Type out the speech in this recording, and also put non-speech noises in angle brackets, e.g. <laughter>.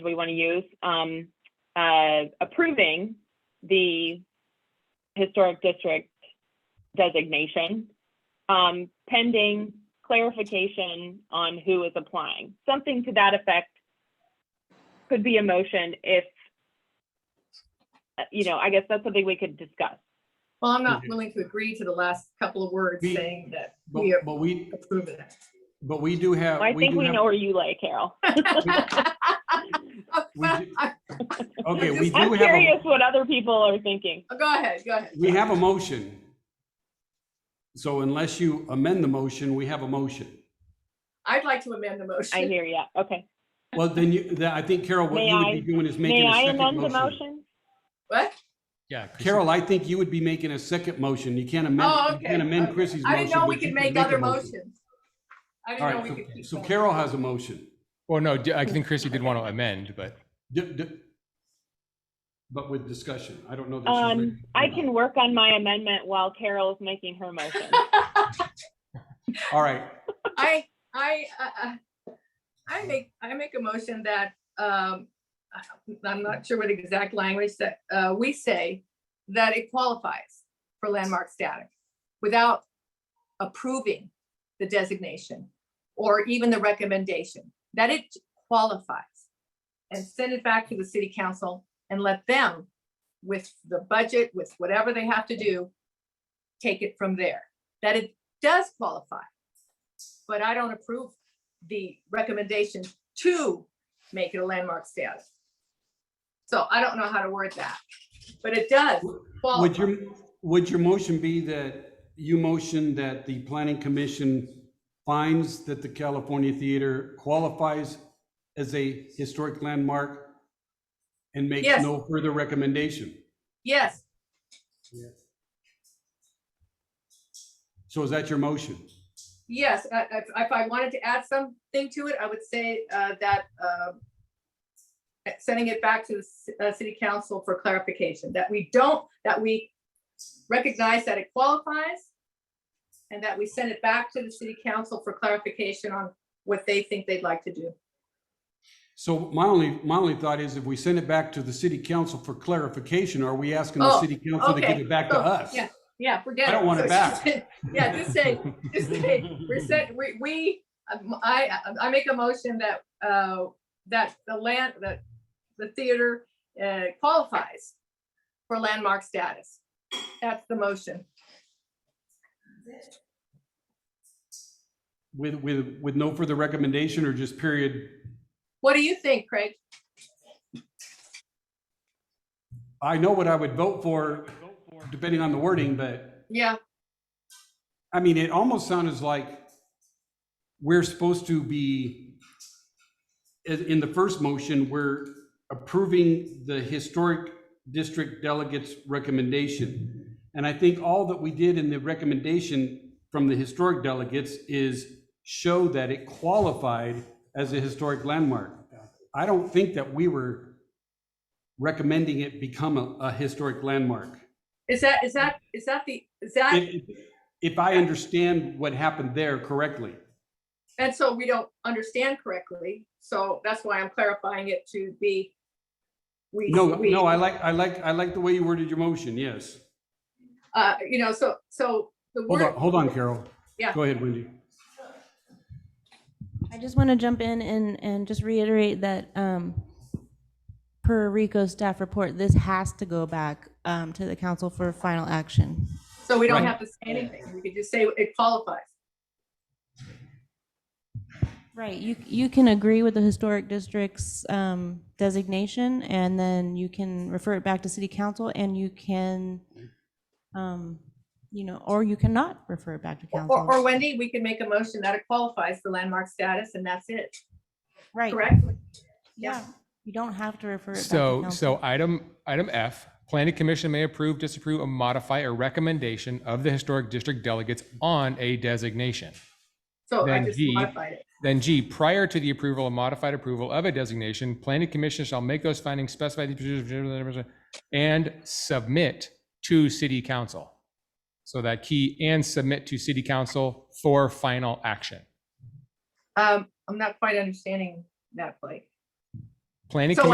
we want to use, um, uh, approving the historic district designation, um, pending clarification on who is applying. Something to that effect could be a motion if, uh, you know, I guess that's something we could discuss. Well, I'm not Mhm. willing to agree to the last couple of words We- saying <laughs> that But, we but we, approve it. but Uh, we do have. I think do we have- know where you lay, Carol. <laughs> <laughs> We do- Okay, we do I'm have, a- curious what other people are thinking. Oh, Go ahead, go ahead. we have a motion. So unless you amend the motion, we have a motion. I'd like to amend the I motion. hear ya. Okay. Well, then you, that- I think Carol, what May you I- would be doing is May making a I second amend the motion. motion? <laughs> What? Yeah. 'cause Carol, I think you would be making a second motion. You can't Oh, amend, you okay, can't amend okay. Chrissy's motion. I didn't know but we you could can make a other motion. motions. I All didn't know we right, could. keep so so going. Carol has a motion. Well, no, d- I think Chrissy did want to amend, but D- d- But with discussion. I don't know. that she's Um, ready. I can work on my amendment while Carol's making her motion. All right, I, I, uh, uh, I make, I make a motion that, um, I- I'm not sure what exact language that, uh, we say that it qualifies for landmark status without approving the designation or even the recommendation, that it qualifies. And send it back to the city council and let them, with the budget, with whatever they have to do, take it from there, that it does qualify but I don't approve the recommendation to make it a landmark status. So I don't know how to word that, but it does Would qualify. your, would your motion be that you motion that the planning commission finds that the California Theater qualifies as a historic landmark and makes Yes. no further recommendation? Yes, So is that your motion? yes, I- I- if I wanted to add something to it, I would say uh, that uh, sending it back to the ci- uh, city council for clarification, that we don't, that we recognize that it qualifies and that we send it back to the city council for clarification on what they think they'd like to do. So my only, my only thought is if we send it back to the city council for clarification, are we asking the Oh, city council to give okay. it back to Oh, us? yeah. Yeah, forget it. I don't want it So she back. said- <laughs> Yeah, just say, just say, <laughs> we're set, we, we, um, I, I make a motion that, uh, that the land, that the theater uh, qualifies for landmark status. That's the motion. With, with, with no further recommendation or just period? What do you think, Craig? I know what I would vote for, depending on the wording, but. Yeah, I mean, it almost sounded like we're supposed to be, in in the first motion, we're approving the historic district delegates recommendation. And I think all that we did in the recommendation from the historic delegates is show that it qualified as a historic landmark. I don't think that we were recommending it become a, a historic landmark. is that, is that, is that the, is that, If, if I understand what happened there correctly. and so we don't understand correctly, so that's why I'm clarifying it to be. we- No, we- no, I like, I like, I like the way you worded your motion, yes. Uh, you know, so, so the Hold word. on, hold on, Carol. Yeah. Go ahead, Wendy. I just want to jump in and, and just reiterate that um, per Rico's staff report, this has to go back um, to the council for final action. So we don't Right. have to say anything. We could just say it qualifies. Right, you, you can agree with the historic district's um, designation, and then you can refer it back to city council, and you can, um, you know, or you cannot refer it back to Or, or council. Wendy, we can make a motion that it qualifies for landmark status and that's it, Right, correct? yeah, you don't have to refer it back to so, council. so item, item F, planning commission may approve, disapprove, or modify a recommendation of the historic district delegates on a designation. So I Then just he- modified it. Then G, prior to the approval or modified approval of a designation, planning commission shall make those findings specified in the procedure and submit to city council. So that key and submit to city council for final action. Um, I'm not quite understanding that, Blake. Planning So